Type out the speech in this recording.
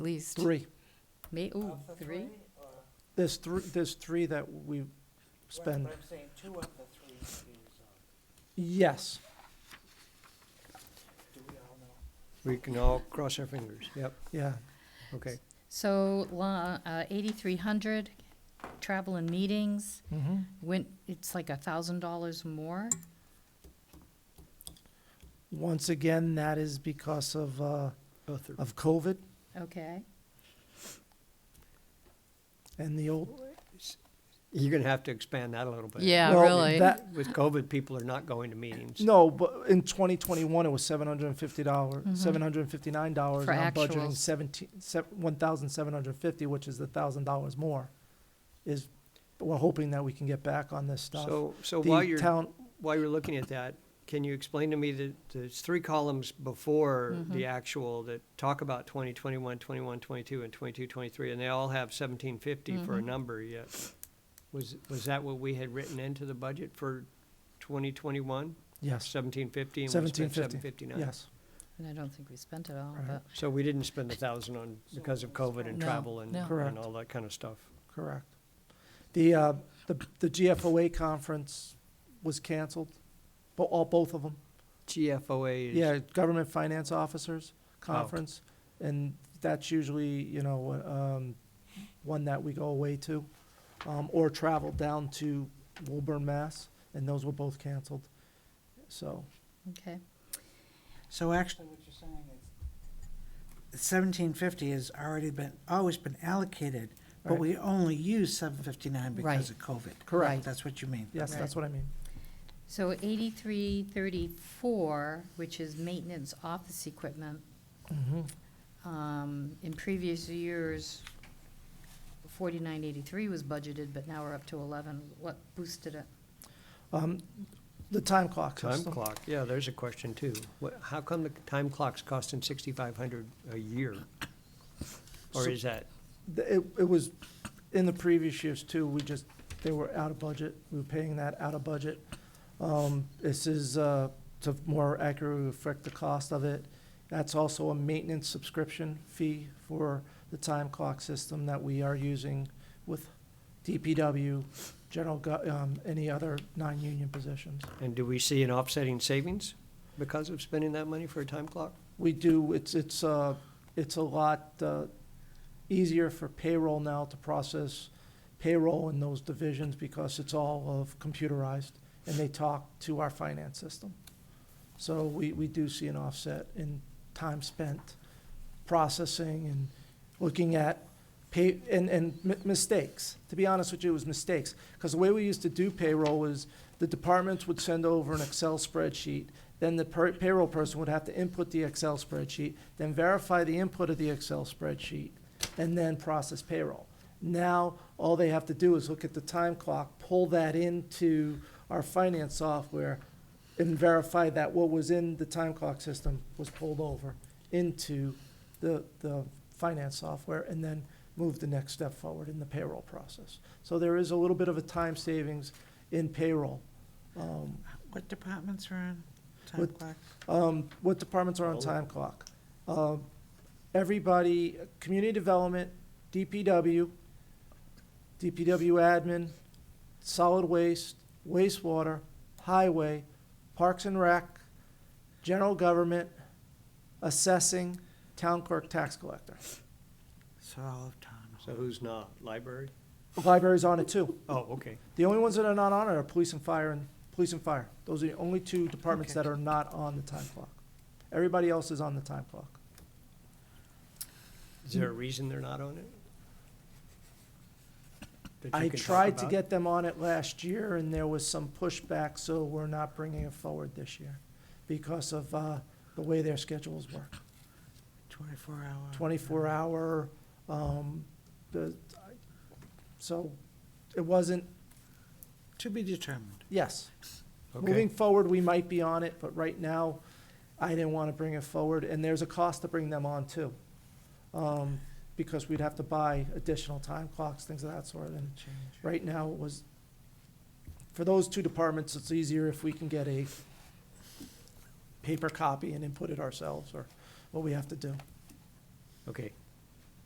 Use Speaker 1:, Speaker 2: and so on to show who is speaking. Speaker 1: at least?
Speaker 2: Three.
Speaker 1: Me, ooh,
Speaker 3: Of the
Speaker 1: three?
Speaker 3: or-
Speaker 2: There's three, there's three that we spend.
Speaker 3: But I'm saying two of the three um, need to be resolved.
Speaker 2: Yes,
Speaker 3: Do we all know?
Speaker 4: We can all cross our fingers, yep,
Speaker 2: yeah.
Speaker 4: okay.
Speaker 1: So, la, uh, eighty-three hundred, travel and meetings,
Speaker 2: Mm-hmm.
Speaker 1: went, it's like a thousand dollars more?
Speaker 2: Once again, that is because of, uh,
Speaker 4: Both are-
Speaker 2: of COVID
Speaker 1: Okay,
Speaker 2: and the old.
Speaker 4: You're gonna have to expand that a little bit.
Speaker 5: Yeah,
Speaker 2: Well,
Speaker 5: really.
Speaker 2: that-
Speaker 4: With COVID, people are not going to meetings.
Speaker 2: No, but in twenty twenty-one, it was seven hundred and fifty dollars, seven hundred and fifty-nine dollars.
Speaker 1: For
Speaker 2: and I'm budgeting
Speaker 1: actuals.
Speaker 2: seventeen, one thousand seven hundred and fifty, which is the thousand dollars more. Is, we're hoping that we can get back on this stuff.
Speaker 4: So, so
Speaker 2: The
Speaker 4: while you're,
Speaker 2: town-
Speaker 4: while you're looking at that, can you explain to me the, the three columns before
Speaker 5: Mm-hmm.
Speaker 4: the actual that talk about 20, 21, 21, 22, and 22, 23, and they all have 1750 for
Speaker 5: Mm-hmm.
Speaker 4: a number yet? Was, was that what we had written into the budget for 2021?
Speaker 2: Yes,
Speaker 4: 1750 and we spent
Speaker 2: 1750.
Speaker 4: 759?
Speaker 2: Yes,
Speaker 1: and I don't think we spent it all,
Speaker 2: Right.
Speaker 1: but,
Speaker 4: So we didn't spend a thousand on, because of COVID and
Speaker 1: No,
Speaker 4: travel and,
Speaker 1: no.
Speaker 2: Correct.
Speaker 4: and all that kind of stuff.
Speaker 2: correct. The, uh, the, the GFOA conference was canceled, bo- all, both of them.
Speaker 4: GFOA is.
Speaker 2: Yeah, Government Finance Officers Conference, and that's usually, you know, um, one that we go away to, um, or travel down to Woburn, Mass, and those were both canceled. So,
Speaker 1: okay.
Speaker 3: So actually, what you're saying is seventeen fifty has already been, always been allocated, but
Speaker 2: Right.
Speaker 3: we only use seven fifty-nine because
Speaker 1: Right.
Speaker 3: of COVID.
Speaker 1: Correct.
Speaker 3: That's what you mean.
Speaker 2: yes, that's what I mean.
Speaker 1: So eighty-three thirty-four, which is maintenance office equipment,
Speaker 2: Mm-hmm.
Speaker 1: um, in previous years, forty-nine eighty-three was budgeted, but now we're up to eleven. What boosted it?
Speaker 2: Um, the time clock
Speaker 4: Time
Speaker 2: system.
Speaker 4: clock, yeah, there's a question too. What, how come the time clock's costing sixty-five hundred a year? Or
Speaker 2: So-
Speaker 4: is that,
Speaker 2: Th- It, it was, in the previous years too, we just, they were out of budget, we were paying that out of budget. Um, this is, uh, to more accurately reflect the cost of it. That's also a maintenance subscription fee for the time clock system that we are using with DPW, general, gov- um, any other non-union positions.
Speaker 4: and do we see an offsetting savings because of spending that money for a time clock?
Speaker 2: We do, it's, it's, uh, it's a lot, uh, easier for payroll now to process payroll in those divisions because it's all of computerized and they talk to our finance system. So we, we do see an offset in time spent processing and looking at pay, and, and mi- mistakes. To be honest with you, it was mistakes. Because the way we used to do payroll is the departments would send over an Excel spreadsheet. Then the per- payroll person would have to input the Excel spreadsheet, then verify the input of the Excel spreadsheet, and then process payroll. Now, all they have to do is look at the time clock, pull that into our finance software, and verify that what was in the time clock system was pulled over into the, the finance software, and then move the next step forward in the payroll process. So there is a little bit of a time savings in payroll. Um,
Speaker 3: What departments are on time
Speaker 2: What-
Speaker 3: clock?
Speaker 2: um, what departments are on
Speaker 4: All.
Speaker 2: time clock? Um, everybody, community development, DPW, DPW admin, solid waste, wastewater, highway, parks and rec, general government, assessing, town clerk, tax collector.
Speaker 3: So all of town.
Speaker 4: So who's not? Library?
Speaker 2: Library's on it too.
Speaker 4: Oh, okay.
Speaker 2: The only ones that are not on it are police and fire and, police and fire. Those are the only two departments
Speaker 3: Okay.
Speaker 2: that are not on the time clock. Everybody else is on the time clock.
Speaker 4: Is there a reason they're not on it? That you
Speaker 2: I
Speaker 4: can talk
Speaker 2: tried to
Speaker 4: about?
Speaker 2: get them on it last year, and there was some pushback, so we're not bringing it forward this year because of uh, the way their schedules work.
Speaker 3: Twenty-four hour.
Speaker 2: Twenty-four hour, um, the, so it wasn't,
Speaker 3: To be determined.
Speaker 2: yes.
Speaker 4: Okay.
Speaker 2: Moving forward, we might be on it, but right now, I didn't want to bring it forward, and there's a cost to bring them on too. um, Because we'd have to buy additional time clocks, things of that sort, and
Speaker 3: Change.
Speaker 2: right now it was, for those two departments, it's easier if we can get a paper copy and input it ourselves, or what we have to do.
Speaker 4: Okay,